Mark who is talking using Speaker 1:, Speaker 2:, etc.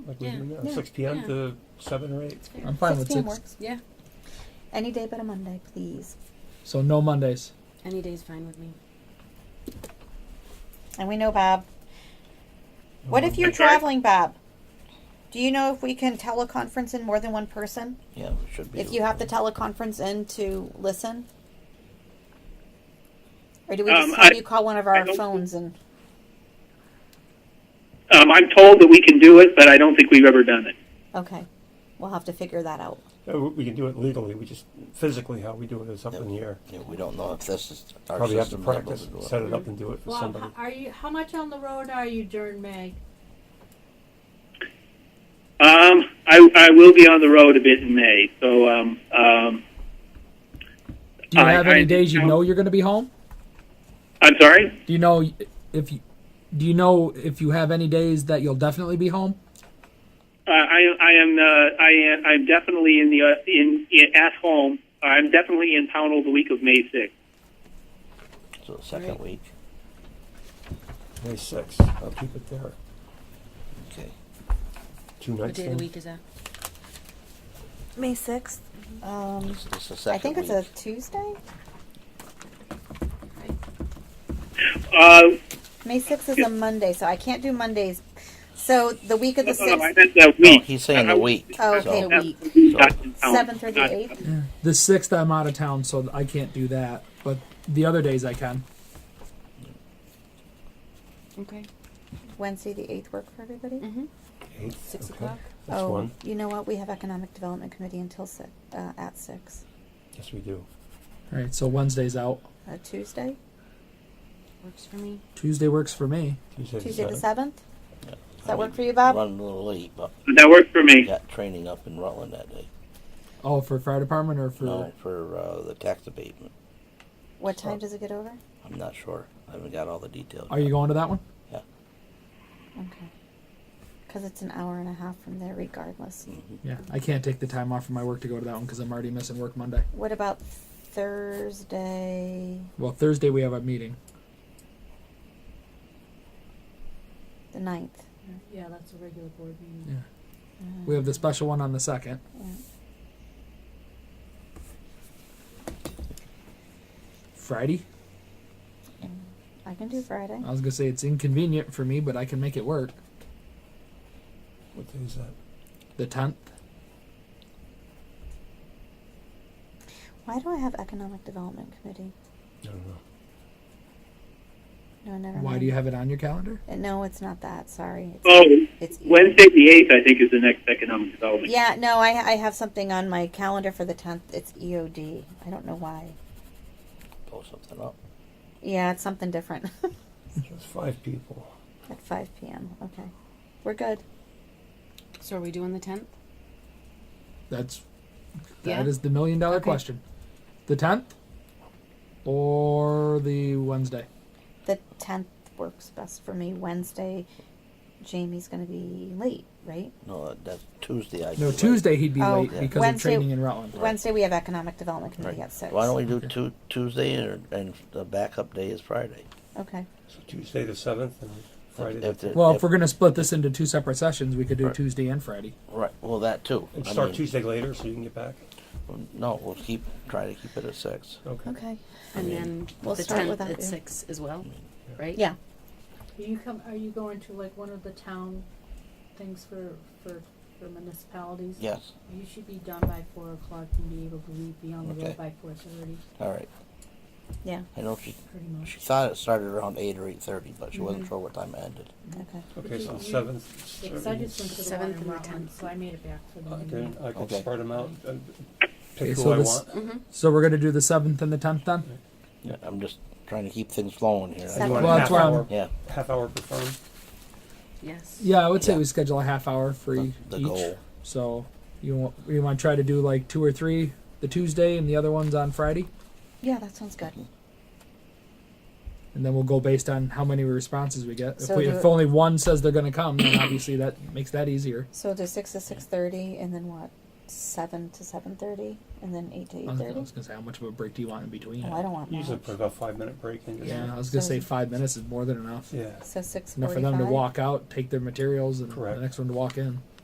Speaker 1: like we're
Speaker 2: Yeah.
Speaker 1: doing now,
Speaker 3: Yeah.
Speaker 1: six P M
Speaker 2: Yeah.
Speaker 1: to seven or eight.
Speaker 2: It's fair.
Speaker 4: I'm fine with
Speaker 3: 16
Speaker 4: six.
Speaker 3: works.
Speaker 2: Yeah,
Speaker 3: Any day but a Monday, please.
Speaker 4: So no Mondays.
Speaker 2: any day's fine with me.
Speaker 3: And we know Bob. What if
Speaker 1: Um,
Speaker 3: you're
Speaker 5: I'm sorry?
Speaker 3: traveling, Bob? Do you know if we can teleconference in more than one person?
Speaker 5: Yeah, we should be.
Speaker 3: If you have to teleconference in to listen? Or do we
Speaker 5: Um,
Speaker 3: just have
Speaker 5: I-
Speaker 3: you call one of
Speaker 5: I
Speaker 3: our
Speaker 5: don't-
Speaker 3: phones and
Speaker 5: Um, I'm told that we can do it, but I don't think we've ever done it.
Speaker 3: okay. We'll have to figure that out.
Speaker 1: uh, we- We can do it legally, we just, physically how we do it is up
Speaker 5: Yeah.
Speaker 1: in the air.
Speaker 5: Yeah, we don't know if this is our
Speaker 1: Probably have to
Speaker 5: system able
Speaker 1: practice,
Speaker 5: to do it.
Speaker 1: set it up and do it for
Speaker 6: Well,
Speaker 1: somebody.
Speaker 6: h- are you, how much on the road are you during May?
Speaker 5: Um, I, I will be on the road a bit in May, so um, um,
Speaker 4: Do you
Speaker 5: I-
Speaker 4: have
Speaker 5: I-
Speaker 4: any days you
Speaker 5: no.
Speaker 4: know you're going to be home?
Speaker 5: I'm sorry.
Speaker 4: Do you know if you do you know if you have any days that you'll definitely be home?
Speaker 5: Uh, I, I am uh, I am I'm definitely in the uh, in, in at home. I'm definitely in Pownell the week of May 6th.
Speaker 7: So the second
Speaker 2: Right.
Speaker 7: week,
Speaker 1: May sixth, I'll keep it there,
Speaker 7: okay.
Speaker 3: Mm-hmm.
Speaker 1: two
Speaker 2: What
Speaker 1: nights
Speaker 2: day of the
Speaker 1: in.
Speaker 2: week is that?
Speaker 8: May 6th.
Speaker 3: Um,
Speaker 7: It's, it's the
Speaker 3: I
Speaker 7: second
Speaker 3: think it's a
Speaker 7: week.
Speaker 3: Tuesday?
Speaker 5: Uh,
Speaker 3: May 6th is a Monday, so I can't do Mondays. So the week of the
Speaker 5: oh, no, no, I
Speaker 3: 6th,
Speaker 5: meant the week.
Speaker 7: he's saying the
Speaker 5: I-
Speaker 7: week,
Speaker 3: Oh, okay.
Speaker 7: so-
Speaker 5: That's
Speaker 2: week.
Speaker 5: the week, not in Pownell.
Speaker 3: 7th or the
Speaker 5: Oh, Not-
Speaker 3: 8th?
Speaker 4: The sixth, I'm out of town, so I can't do that. But the other days I can.
Speaker 2: Okay.
Speaker 3: Wednesday, the 8th work for everybody?
Speaker 2: Mm-hmm.
Speaker 1: Eighth,
Speaker 2: Six
Speaker 1: okay.
Speaker 2: o'clock.
Speaker 1: Mm. That's
Speaker 3: oh,
Speaker 1: one,
Speaker 3: you know what? We have Economic Development Committee until six, uh, at 6.
Speaker 1: yes, we do.
Speaker 4: All right. So Wednesday's out.
Speaker 3: Uh, Tuesday?
Speaker 2: Works for me.
Speaker 4: Tuesday works for me.
Speaker 1: Tuesday the
Speaker 3: Tuesday the
Speaker 1: seventh.
Speaker 3: 7th? Does that work for you,
Speaker 7: Run
Speaker 3: Bob?
Speaker 7: a little late, but
Speaker 5: That worked for
Speaker 7: we
Speaker 5: me.
Speaker 7: got training up in Rutland that day.
Speaker 4: Oh, for fire department or for
Speaker 7: No, for uh, the tax abatement.
Speaker 3: What time does it get over?
Speaker 7: I'm not sure. I haven't got all the details.
Speaker 4: are you going to that one?
Speaker 3: Okay. Because it's an hour and a half from there, regardless.
Speaker 7: Mm-hmm.
Speaker 4: Yeah, I can't take the time off from my work to go to that one because I'm already missing work Monday.
Speaker 3: What about Thursday,
Speaker 4: Well, Thursday we have a meeting.
Speaker 3: the 9th?
Speaker 6: Yeah, that's a regular board meeting.
Speaker 4: We have the special one on the second. Friday.
Speaker 3: I can do Friday.
Speaker 1: Uh,
Speaker 4: I was gonna say it's inconvenient for me, but I can make it work.
Speaker 1: What day is that?
Speaker 4: The tenth.
Speaker 3: Why do I have Economic Development Committee?
Speaker 1: I don't know.
Speaker 3: No, never
Speaker 4: Why
Speaker 3: mind.
Speaker 4: do you have it on your calendar?
Speaker 3: Uh, No, it's not that. Sorry. It's,
Speaker 5: Oh,
Speaker 3: it's E.
Speaker 5: Wednesday the 8th, I think, is the next economic development.
Speaker 3: Yeah, no, I, I have something on my calendar for the 10th. It's EOD. I don't know why.
Speaker 7: Pull something up.
Speaker 3: Yeah, it's something different.
Speaker 1: There's five people.
Speaker 3: At 5 p.m. Okay. We're good.
Speaker 2: So are we doing the tenth?
Speaker 4: That's
Speaker 2: Yeah.
Speaker 4: that is the million dollar
Speaker 2: Okay.
Speaker 4: question. The tenth or the Wednesday?
Speaker 3: The 10th works best for me. Wednesday, Jamie's going to be late, right?
Speaker 7: No, that- that's Tuesday. I
Speaker 4: No,
Speaker 7: do,
Speaker 4: Tuesday he'd be
Speaker 3: Oh,
Speaker 4: late because
Speaker 3: Wednesday-
Speaker 4: of training in Rutland.
Speaker 3: Wednesday, we have Economic Development
Speaker 7: Right.
Speaker 3: Committee at 6.
Speaker 7: Why don't we do Tu- Tuesday and, and the backup day is Friday?
Speaker 3: Okay.
Speaker 1: So Tuesday the seventh and Friday the
Speaker 7: If the-
Speaker 4: Well,
Speaker 7: if-
Speaker 4: if we're gonna split this into two separate sessions, we could do
Speaker 7: Right.
Speaker 4: Tuesday and Friday.
Speaker 7: right, well, that too.
Speaker 1: And
Speaker 7: I
Speaker 1: start
Speaker 7: mean,
Speaker 1: Tuesday later so you can get back?
Speaker 7: No, we'll keep try to keep it at six.
Speaker 1: Okay.
Speaker 3: Okay.
Speaker 2: And
Speaker 7: mean,
Speaker 2: then
Speaker 3: we'll
Speaker 2: the
Speaker 3: start
Speaker 2: tenth
Speaker 3: with that,
Speaker 2: at
Speaker 3: yeah.
Speaker 2: six as well, right?
Speaker 3: Yeah.
Speaker 6: Are you come, are you going to like one of the town things for, for, for municipalities?
Speaker 7: Yes.
Speaker 6: You should be done by four o'clock and be able to leave, be on the
Speaker 7: Okay.
Speaker 6: road by four thirty,
Speaker 7: All right.
Speaker 3: Yeah.
Speaker 7: I know she
Speaker 6: pretty much.
Speaker 7: she thought it started around eight or eight thirty, but she
Speaker 3: Mm-hmm.
Speaker 7: wasn't sure what time it ended.
Speaker 3: Okay.
Speaker 1: Okay, so the
Speaker 6: You-
Speaker 1: seventh.
Speaker 6: Because I just went to the water
Speaker 2: Seventh and
Speaker 6: in
Speaker 2: the
Speaker 6: Rutland,
Speaker 2: tenth.
Speaker 6: so I made it back for the
Speaker 1: I
Speaker 6: meeting.
Speaker 1: can, I can
Speaker 7: Okay.
Speaker 1: spread them out and
Speaker 4: Okay,
Speaker 1: pick who
Speaker 4: so
Speaker 1: I
Speaker 4: this-
Speaker 1: want.
Speaker 2: Mm-hmm.
Speaker 4: So we're gonna do the seventh and the tenth then.
Speaker 7: Yeah, I'm just trying to keep things flowing here.
Speaker 3: Seven.
Speaker 1: You want a
Speaker 4: Well, that's
Speaker 1: half
Speaker 4: why I'm-
Speaker 1: hour,
Speaker 7: Yeah,
Speaker 1: half hour per firm?
Speaker 2: Yes.
Speaker 4: Yeah, I would say
Speaker 7: Yeah.
Speaker 4: we schedule a half hour for
Speaker 7: the,
Speaker 4: e-
Speaker 7: the
Speaker 4: each.
Speaker 7: goal.
Speaker 4: So you want you want to try to do like two or three the Tuesday and the other ones on Friday,
Speaker 3: Yeah, that sounds good.
Speaker 4: and then we'll go based on how many responses we get. If,
Speaker 3: So
Speaker 4: we,
Speaker 3: do
Speaker 4: if
Speaker 3: it-
Speaker 4: only one says they're going to come, then obviously that makes that easier.
Speaker 3: So the 6 to 6.30 and then what? seven to seven thirty, and then eight to
Speaker 4: I
Speaker 3: eight
Speaker 4: was,
Speaker 7: Oh,
Speaker 4: I
Speaker 3: thirty.
Speaker 4: was gonna say, how much of a break do you want in between?
Speaker 3: Oh, I don't want
Speaker 1: Usually
Speaker 3: much.
Speaker 1: put about five minute break in. just-
Speaker 4: yeah, I was gonna say
Speaker 3: So-
Speaker 4: five minutes is more than enough.
Speaker 1: Yeah.
Speaker 3: So six
Speaker 4: Enough
Speaker 3: forty-five.
Speaker 4: for them to walk out, take their materials, and
Speaker 1: Correct.
Speaker 4: the next one to walk in.